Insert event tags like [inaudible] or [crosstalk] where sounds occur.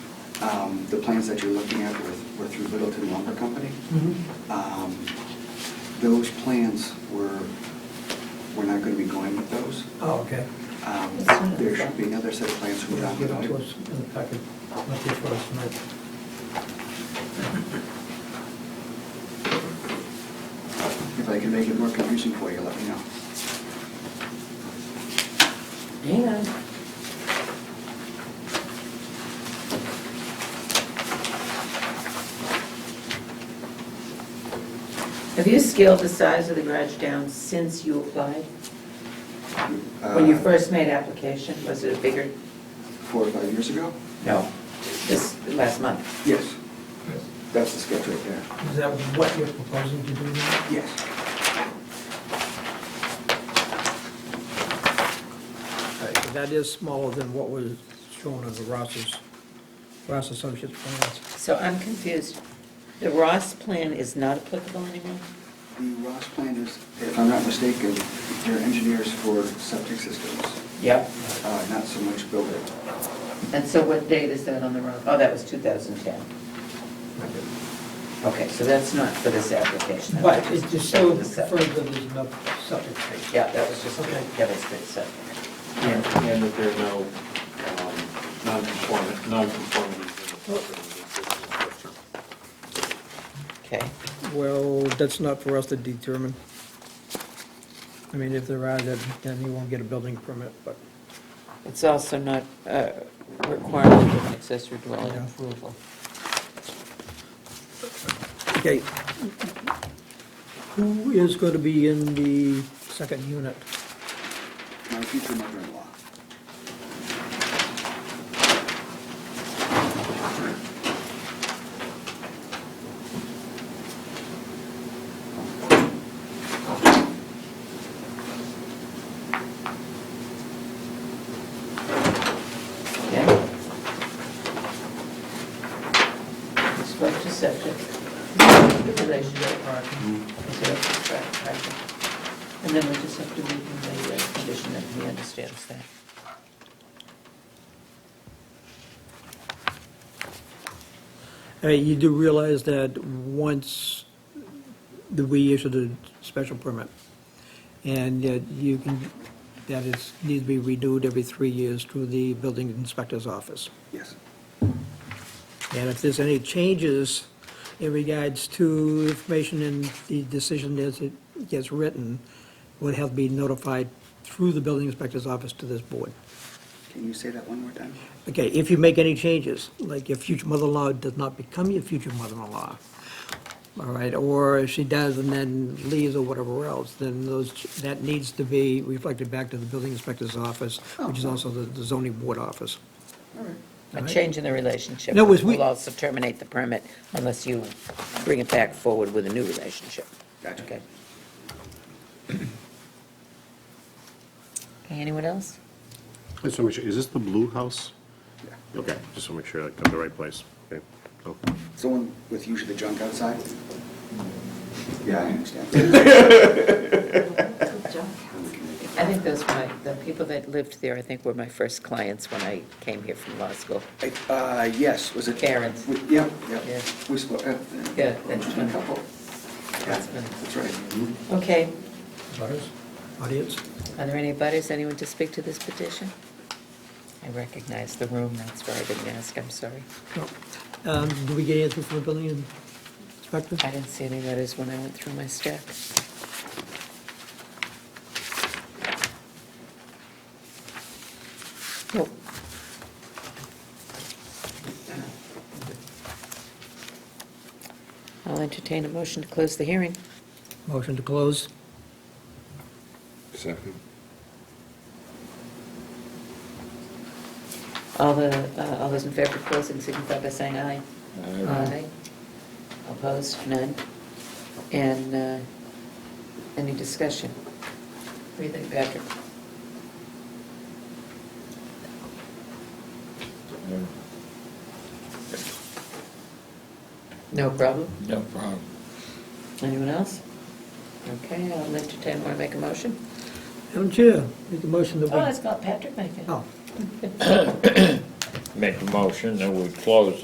Um, The plans that you're looking at were- were through Littleton Lumber Company. Mm-hmm. Um, Those plans were, we're not going to be going with those. Oh, okay. Um, There should be another set of plans who are not Give it to going. us in the packet, not here for us tonight. If I can make it more confusing for you, let me know. Hang on. Have you scaled the size of the garage down since you applied? When you Uh, first made application, was it bigger Four or five years ago? No. this last month? Yes. That's the sketch right there. Is that what you're proposing to do now? Yes. Okay, so That is smaller than what was shown on the Ross's, Ross Associates plans. So I'm confused. The Ross plan is not applicable anymore? The Ross plan is, if I'm not mistaken, they're engineers for septic systems, Yep. uh, not so much building. And so what date is that on the Ross? Oh, that was 2010. Okay, so that's not for this application. That But was it just showed the septic. further there's enough septic space. Yeah, that was just, Okay. yeah, that's the septic. And and that there are no um, non-conformi- non-conformities in the property. Okay. Well, that's not for us to determine. I mean, if there are, then then you won't get a building permit, but, It's also not a requirement of an accessory dwelling Yeah. approval. okay. Who is going to be in the second unit? My future mother-in-law. Okay? Structure septic, the relationship part. And then we just have to read the uh, condition that he understands that. Uh, You do realize that once that we issue the special permit, and that you can, that is, needs to be renewed every three years through the building inspector's office. Yes. And if there's any changes in regards to information in the decision as it gets written, would have to be notified through the building inspector's office to this board. Can you say that one more time? Okay, if you make any changes, like your future mother-in-law does not become your future mother-in-law, all right, or if she does and then leaves or whatever else, then those, that needs to be reflected back to the building inspector's office, which is also the the zoning board office. All right. A Right. change in the relationship No, was we- will also terminate the permit unless you bring it back forward with a new relationship. Gotcha. Okay. Okay, Anyone else? I just want to make sure, is this the blue house? Yeah. Okay, just want to make sure I come to the right place. Okay. Oh. It's the one with usually the junk outside? Yeah, I [laughs] understand. I think those were my, the people that lived there, I think were my first clients when I came here from law school. Uh, yes, was it? Karen's. We- Yep, Yeah. yep. We spoke, uh, Yeah, that's a fine. couple. Yeah, That's fine. That's right. Okay, Butters? Audience? are there any butters, anyone to speak to this petition? I recognize the room, that's why I didn't ask, I'm sorry. No. Um, Did we get anything from the building inspector? I didn't see any letters when I went through my stack. Nope. I'll entertain a motion to close the hearing. Motion to close? Second. All the, uh, all those in favor of closing signify by saying aye. Aye. Opposed, none. And uh, any discussion? What do you think, Patrick? No problem? No problem. Anyone else? Okay, I'll entertain, want to make a motion? Madam Chair, make a motion that Oh, we... that's not Patrick making it. Oh. Make a motion that we close